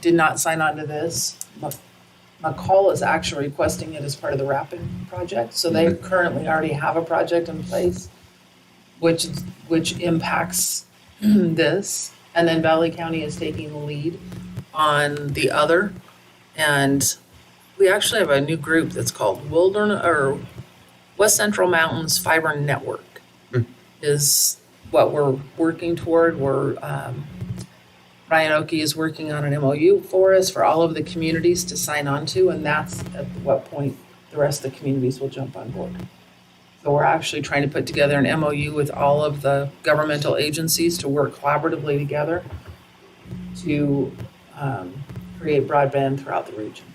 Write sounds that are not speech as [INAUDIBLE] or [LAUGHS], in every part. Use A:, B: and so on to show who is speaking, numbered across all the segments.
A: did not sign on to this. Mac- McCall is actually requesting it as part of the Rapid project, so they currently already have a project in place, which, which impacts [CLEARS THROAT] this. And then Valley County is taking the lead on the other. And we actually have a new group that's called Wilderness, or West Central Mountains Fiber Network
B: Hmm.
A: is what we're working toward. We're, um, Ryan Oki is working on an MOU for us for all of the communities to sign on to, and that's at what point the rest of the communities will jump on board. So we're actually trying to put together an MOU with all of the governmental agencies to work collaboratively together to um, create broadband throughout the region.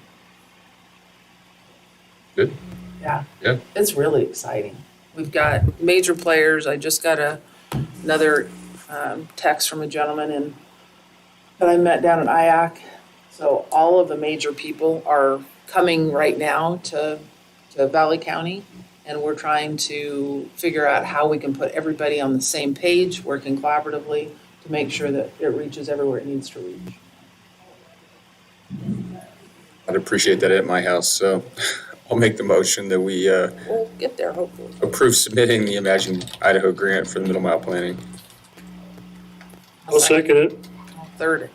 B: Good.
A: Yeah.
B: Yeah.
A: It's really exciting. We've got major players. I just got a, another um, text from a gentleman in that I met down at IAC. So all of the major people are coming right now to, to Valley County. And we're trying to figure out how we can put everybody on the same page, working collaboratively to make sure that it reaches everywhere it needs to reach.
B: I'd appreciate that at my house, so [LAUGHS] I'll make the motion that we uh,
A: We'll get there hopefully.
B: approve submitting the Imagine Idaho grant for the middle mile planning.
C: I'll second it.
A: Third.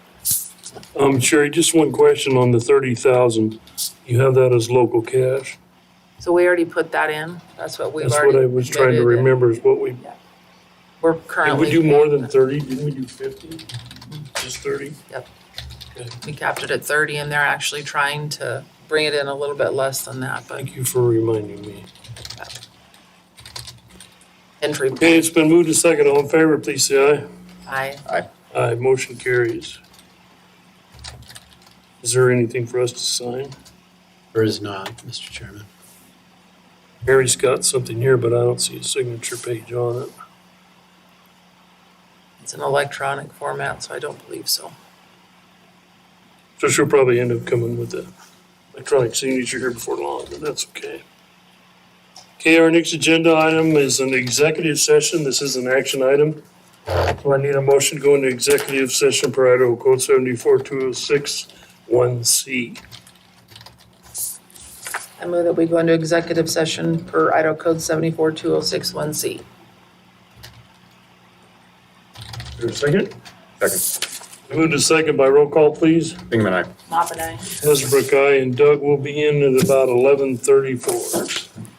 C: Um, Sherry, just one question on the thirty thousand. You have that as local cash?
A: So we already put that in. That's what we've
C: That's
A: already.
C: what I was trying to
A: committed.
C: remember is what we,
A: We're
C: did
A: currently.
C: we do more than thirty? Didn't we do fifty? Just thirty?
A: We capped it at thirty and they're actually trying to bring it in a little bit less than that, but
C: Thank you for reminding me.
A: entry,
C: Okay, it's been moved to second. All in favor, please say
A: I,
C: aye. Aye, motion carries. Is there anything for us to sign?
D: There is not, Mr. Chairman.
C: Harry's got something here, but I don't see a signature page on it.
A: it's an electronic format, so I don't believe so.
C: So she'll probably end up coming with the electronic signature here before long, but that's okay. Okay, our next agenda item is an executive session. This is an action item. So I need a motion to go into executive session per Idaho Code seventy-four two oh six one C.
A: I move that we go into executive session per Idaho Code seventy-four two oh six one C.
C: Is there a second?
B: Second.
C: Moved to second by roll call, please.
B: Bingaman, aye.
A: Mop and I.
C: Hasbrook, aye, and Doug will be in at about eleven thirty-four.